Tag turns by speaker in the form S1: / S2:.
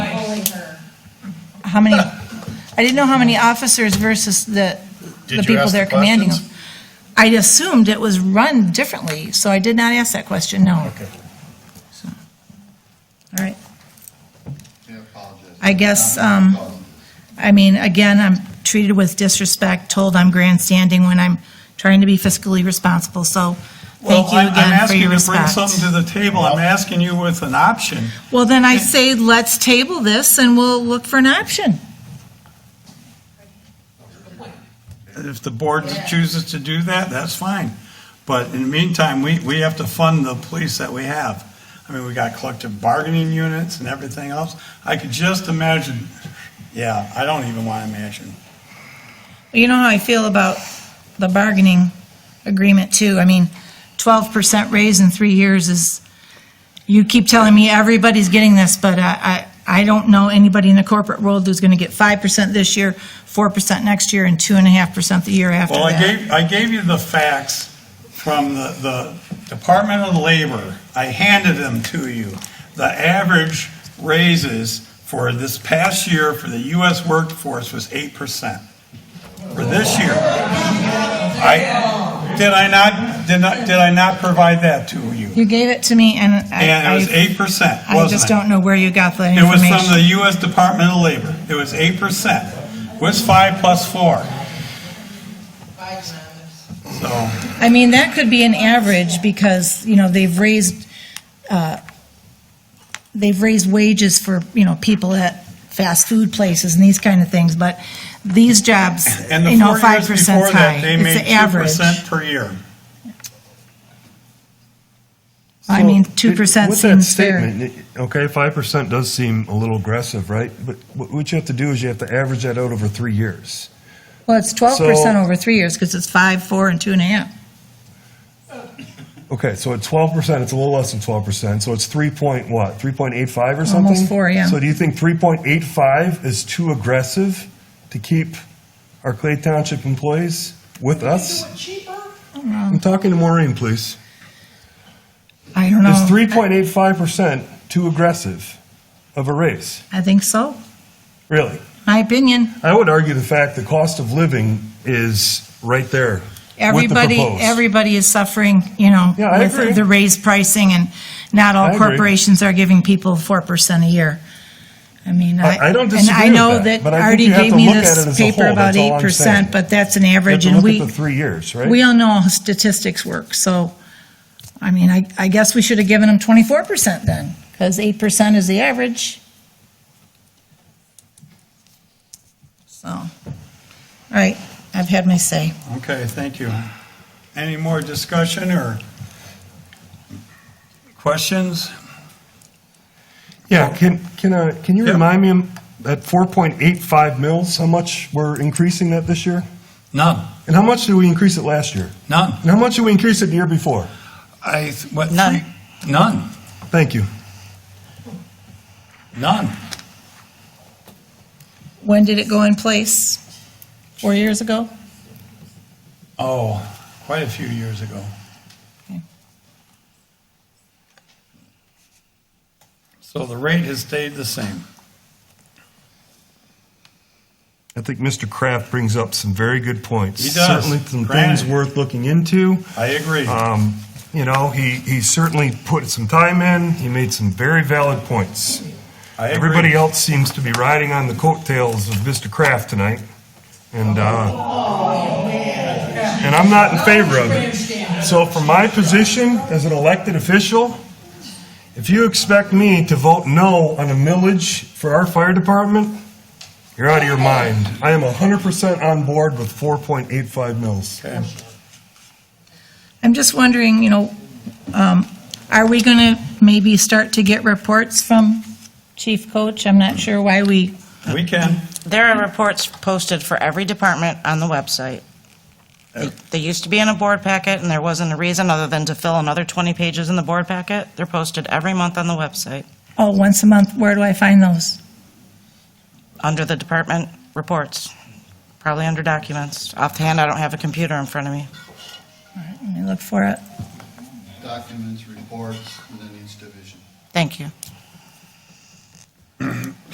S1: how many, I didn't know how many officers versus the,
S2: Did
S1: the
S2: you
S1: people
S2: ask
S1: they're
S2: the
S1: commanding.
S2: questions?
S1: them. I assumed it was run differently, so I did not ask that question, no.
S2: Okay.
S1: So, All right,
S3: I apologize.
S1: I guess, um, I mean, again, I'm treated with disrespect, told I'm grandstanding when I'm trying to be fiscally responsible, so
S4: Well,
S1: thank you
S4: I'm I'm
S1: again for
S4: asking you
S1: your
S4: to bring
S1: respect.
S4: something to the table. I'm asking you with an option.
S1: Well, then I say, let's table this and we'll look for an option.
S4: If the board chooses to do that, that's fine. But in the meantime, we, we have to fund the police that we have. I mean, we got collective bargaining units and everything else. I could just imagine, yeah, I don't even want to imagine.
S1: You know how I feel about the bargaining agreement too. I mean, twelve percent raise in three years is, you keep telling me everybody's getting this, but I, I, I don't know anybody in the corporate world who's gonna get five percent this year, four percent next year, and two and a half percent the year after
S4: Well, I
S1: that.
S4: gave, I gave you the facts from the, the Department of Labor. I handed them to you. The average raises for this past year for the US workforce was eight percent. For this year. I, did I not, did not, did I not provide that to you?
S1: You gave it to me and I.
S4: And it was
S1: I-
S4: eight percent,
S1: I
S4: wasn't it?
S1: just don't know where you got that
S4: It was
S1: information.
S4: from the U.S. Department of Labor. It was eight percent. What's five plus four? So,
S1: I mean, that could be an average because, you know, they've raised, uh, they've raised wages for, you know, people at fast food places and these kind of things, but these jobs,
S4: and the
S1: you know,
S4: four
S1: five
S4: years
S1: percent
S4: before
S1: high.
S4: that, they
S1: It's
S4: made
S1: the
S4: two
S1: average.
S4: percent per year.
S1: I mean,
S5: So,
S1: two percent
S5: with that
S1: seems fair.
S5: statement, it- Okay, five percent does seem a little aggressive, right? But wh- what you have to do is you have to average that out over three years.
S1: Well, it's twelve percent
S5: So-
S1: over three years because it's five, four, and two and a half.
S5: Okay, so at twelve percent, it's a little less than twelve percent, so it's three point what, three point eight five or something?
S1: four, yeah.
S5: So do you think three point eight five is too aggressive to keep our Clay Township employees with us? I'm talking to Maureen, please.
S1: I don't
S5: Is
S1: know.
S5: three point eight five percent too aggressive of a raise?
S1: I think so.
S5: Really?
S1: My opinion.
S5: I would argue the fact the cost of living is right there.
S1: Everybody,
S5: proposed.
S1: everybody is suffering, you know,
S5: Yeah, I agree.
S1: with the raised pricing, and not
S5: I
S1: all
S5: agree.
S1: corporations are giving people 4% a year. I mean, I...
S5: I- I don't disagree
S1: And I
S5: with
S1: know
S5: that,
S1: that
S5: but I think
S1: Artie
S5: you have
S1: gave
S5: to
S1: me
S5: look at it
S1: this
S5: as a whole,
S1: paper about
S5: that's all I'm
S1: 8%,
S5: saying.
S1: but that's an
S5: You have
S1: average,
S5: to
S1: and
S5: look
S1: we...
S5: at the three years, right?
S1: We all know how statistics work, so, I mean, I, I guess we should have given them 24% then, because 8% is the average. So, all right, I've had my say.
S4: Okay, thank you. Any more discussion or questions?
S5: Yeah, can, can, uh, can you
S4: Yeah.
S5: remind me, at four point eight five mils, how much we're increasing that this year?
S4: None,
S5: And how much did we increase it last year?
S4: none.
S5: And how much did we increase it the year before?
S4: I, what? three-
S1: None.
S4: None,
S5: Thank you.
S4: none.
S1: When did it go in place? Four years ago?
S4: Oh, quite a few years ago.
S1: Okay.
S4: So the rate has stayed the same.
S5: I think Mr. Kraft brings up some very good points.
S4: He does.
S5: Certainly some things
S4: Granted.
S5: worth looking into.
S4: I agree.
S5: Um, You know, he, he certainly put some time in, he made some very valid points.
S4: I agree.
S5: Everybody else seems to be riding on the coattails of Mr. Kraft tonight, and, uh, and I'm not in favor of it. So from my position as an elected official, if you expect me to vote no on a millage for our fire department, you're out of your mind. I am 100% on board with 4.85 mils.
S4: Okay.
S1: I'm just wondering, you know, um, are we going to maybe start to get reports from Chief Coach? I'm not sure why we,
S4: We can.
S6: There are reports posted for every department on the website. They- They used to be in a board packet, and there wasn't a reason other than to fill another 20 pages in the board packet. They're posted every month on the website,
S1: oh, once a month, where do I find those?
S6: under the department reports, probably under documents. Offhand, I don't have a computer in front of me.
S1: All right, Let me look for it.
S3: Documents, reports, and then each division.
S6: Thank you.